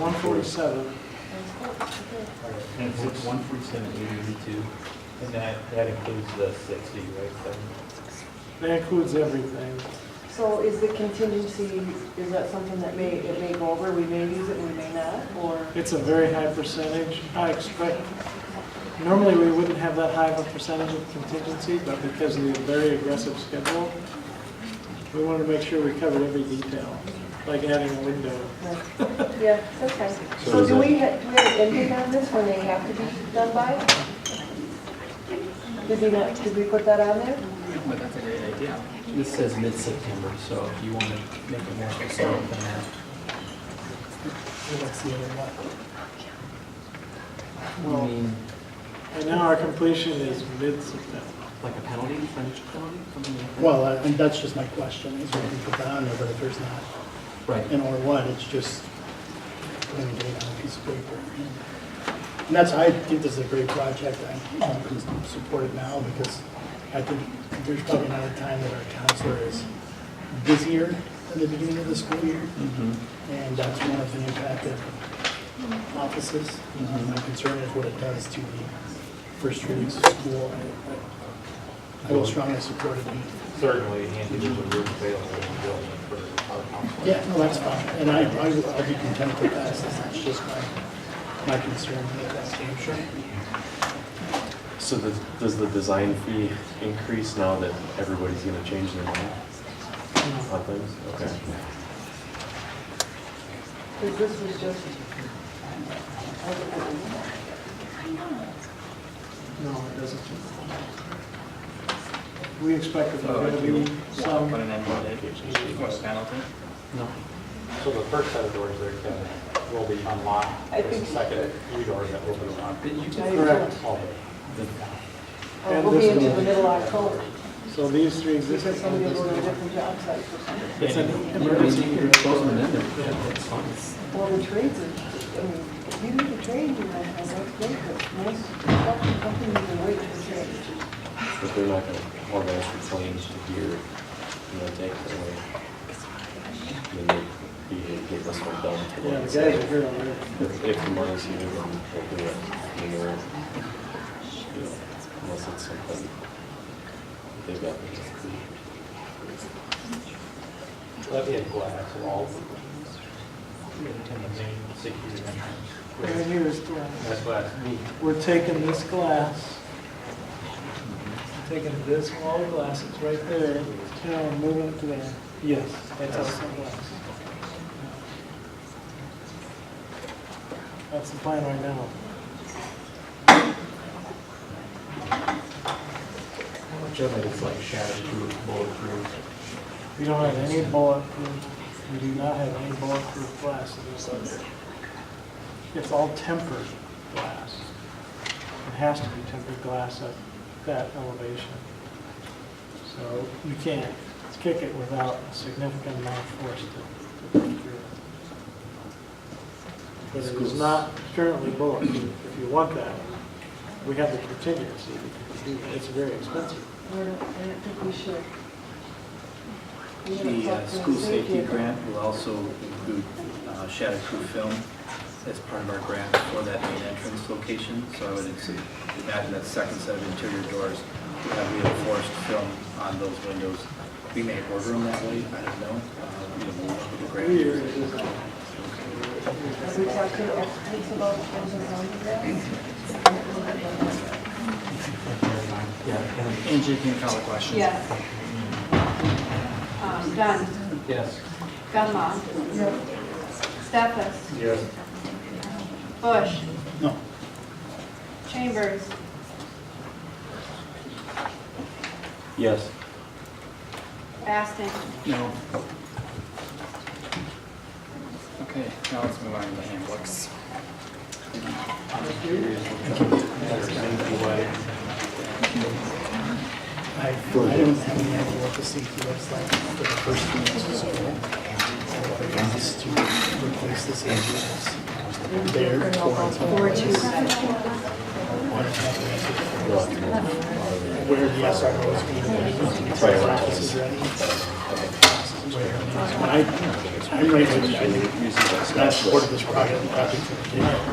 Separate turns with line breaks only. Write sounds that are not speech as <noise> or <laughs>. one forty-seven.
And it's one forty-seven eighty-two, and that, that includes the sixty, right, seven?
That includes everything.
So is the contingency, is that something that may, it may go over, we may use it, we may not,
<laughs>
or?
It's a very high percentage. I expect, normally we wouldn't have that high of a percentage of contingency, but because of the very aggressive schedule, we wanted to make sure we covered every detail, like adding a window.
Yeah, okay.
So
So
is
do
it-
we, ha- do we have an ending on this when they have to be done by? Did we not, did we put that on there?
But that's a great idea. This says mid-September, so if you want to make it more specific than that. You
Well,
mean,
and now our completion is mid-September.
like a penalty, financial penalty, something like that?
Well, I- and that's just my question, is we can put that on there, but if there's not
Right,
an or what, it's just putting a date on a piece of paper. And that's, I think this is a great project, I um, can support it now, because I think there's probably not a time that our counselor is busier than the beginning of the school year,
Mm-hmm.
and that's one of the impacted offices. Um, My concern is what it does to the first three weeks of school. I- I will strongly support it being
Certainly, Andy, there's a room available in the building for our council.
Yeah, no, that's fine, and I, I will- I'll be content with that, so that's just my, my concern with that game show.
So the, does the design fee increase now that everybody's gonna change their mind on things? Okay.
Because this was just.
No, it doesn't. We expect that
Oh,
there's
if
going
you
to be
want
some,
an end date, you want a penalty?
no.
So the first set of doors there can, will be unlocked,
I
there's a
think-
second three doors that will be unlocked.
Did you guys?
correct.
All day.
Or
And
Oh, we'll be
this
into
one.
the middle of October,
So these three existing.
because somebody will go to a different job site for something.
It's an
Emergency,
emergency.
you can close them in there, yeah, that's fine.
Well, the trades are, I mean, if you need a trade, you know, that's great, but most, something you can wait for change.
But they're not gonna organize for claims to gear, you know, take it away. Then they, they get this one done
Yeah, the
today.
guys are here already.
If, if the money's here, then we'll do it. You know, you know, Unless it's something they've got.
Let me add glass all in the main security
Right
entrance.
here is glass.
That's glass neat.
We're taking this glass, taking this wall of glass, it's right there, and we're moving it to there. Yes, that's also glass. That's the plan right now.
How much of it is like shatterproof, bulletproof?
We don't have any bulletproof, we do not have any bulletproof glass in this other. It's all tempered glass. It has to be tempered glass at that elevation. So you can't kick it without a significant amount of force to to break through it. But it is not currently bulletproof. If you want that, we have the contingency. to do that. It's very expensive.
We're not- I don't think we should. We haven't
The uh,
talked to
school safety
yet.
grant will also include uh, shatterproof film as part of our grant for that main entrance location. So I would ex- imagine that second set of interior doors will have reinforced film on those windows. We may order them that way, I don't know. Uh, you know, we'll look at the grant.
Here it is.
Have we talked to the experts about those and how
Angie, can you call the question?
Yes. Um, Dunn.
Yes.
Gunma. Stefas.
Yes.
Bush.
No,
Chambers.
Yes.
Baston.
No. Okay, now let's move on to the handbooks.
I, I don't have any idea what the safety looks like for the first three weeks of school. But it is to replace the safety that's there for
Four, two, seven.
where the SRO is going to be. Office is ready. Where, when I I'm right with you. I think
Usually
it's
that's not
not
the-
supported this project, project.